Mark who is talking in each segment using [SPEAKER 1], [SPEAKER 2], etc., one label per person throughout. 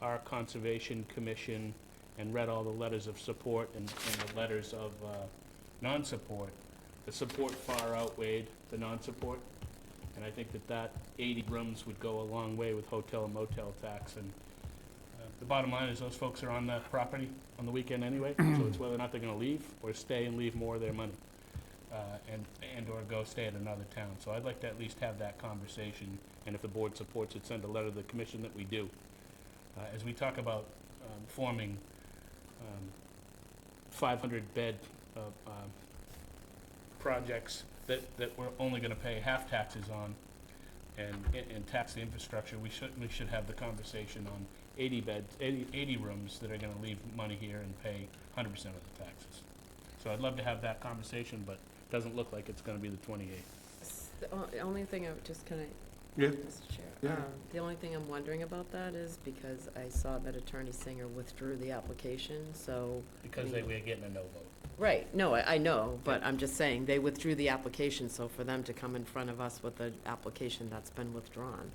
[SPEAKER 1] our Conservation Commission and read all the letters of support and, and the letters of, uh, non-support, the support far outweighed the non-support. And I think that that 80 rooms would go a long way with hotel and motel tax. And uh, the bottom line is those folks are on the property on the weekend anyway, so it's whether or not they're going to leave or stay and leave more of their money uh, and, and/or go stay at another town. So I'd like to at least have that conversation, and if the board supports it, send a letter to the commission that we do. Uh, As we talk about um, forming um, 500-bed uh, um, projects that, that we're only gonna pay half taxes on and, and- and tax the infrastructure, we should, we should have the conversation on 80 beds, 80 80 rooms that are gonna leave money here and pay 100% of the taxes. So I'd love to have that conversation, but doesn't look like it's gonna be the 28th.
[SPEAKER 2] S- The o- the only thing I'm just kind of,
[SPEAKER 3] Yeah,
[SPEAKER 2] Mr. Chair.
[SPEAKER 3] Yeah.
[SPEAKER 2] um, The only thing I'm wondering about that is because I saw that Attorney Singer withdrew the application, so,
[SPEAKER 1] Because they were getting a no vote.
[SPEAKER 2] right, no, I, I know, but I'm just saying, they withdrew the application, so for them to come in front of us with an application that's been withdrawn.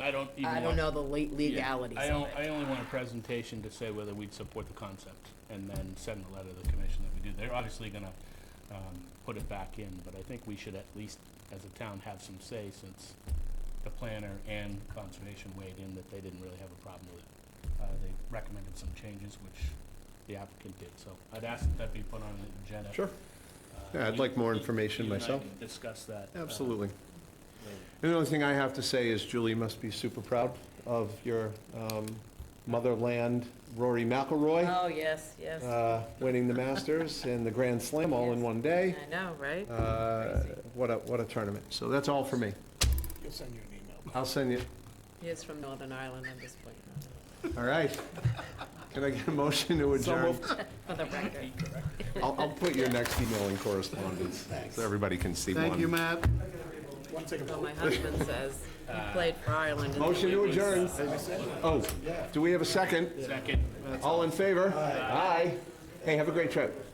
[SPEAKER 1] I don't even
[SPEAKER 2] I don't
[SPEAKER 1] want-
[SPEAKER 2] know the le- legalities
[SPEAKER 1] I
[SPEAKER 2] of
[SPEAKER 1] don't, I
[SPEAKER 2] it.
[SPEAKER 1] only want a presentation to say whether we'd support the concept, and then send a letter to the commission that we do. They're obviously gonna, um, put it back in, but I think we should at least, as a town, have some say, since the planner and conservation weighed in that they didn't really have a problem with it. Uh, they recommended some changes, which the applicant did, so I'd ask that that be put on the agenda.
[SPEAKER 3] Sure.
[SPEAKER 1] Uh,
[SPEAKER 3] Yeah, I'd like more
[SPEAKER 1] you-
[SPEAKER 3] information
[SPEAKER 1] you and I
[SPEAKER 3] myself.
[SPEAKER 1] can Discuss that. uh,
[SPEAKER 3] absolutely.
[SPEAKER 1] later.
[SPEAKER 3] And the only thing I have to say is Julie must be super proud of your um, motherland Rory McIlroy
[SPEAKER 2] Oh, yes, yes.
[SPEAKER 3] uh, winning the Masters and the Grand Slam all in
[SPEAKER 2] Yes.
[SPEAKER 3] one day.
[SPEAKER 2] I know, right?
[SPEAKER 3] Uh,
[SPEAKER 2] Crazy.
[SPEAKER 3] What a, what a tournament. So that's all for me.
[SPEAKER 4] He'll send you an email.
[SPEAKER 3] I'll send you,
[SPEAKER 2] He is from Northern Ireland, I'm just pointing that out,
[SPEAKER 3] all right. Can I get a motion to adjourn?
[SPEAKER 2] for the record.
[SPEAKER 3] I'll, I'll put your next email in correspondence, so everybody can see one.
[SPEAKER 5] Thank you, Matt.
[SPEAKER 4] Want to take a
[SPEAKER 2] Well,
[SPEAKER 4] vote?
[SPEAKER 2] my husband says he played for Ireland. in the
[SPEAKER 3] Motion to
[SPEAKER 2] Olympics,
[SPEAKER 3] adjourn.
[SPEAKER 2] so-
[SPEAKER 3] Oh, do we have a second?
[SPEAKER 1] Second.
[SPEAKER 3] All in favor? Aye. Hey, have a great trip.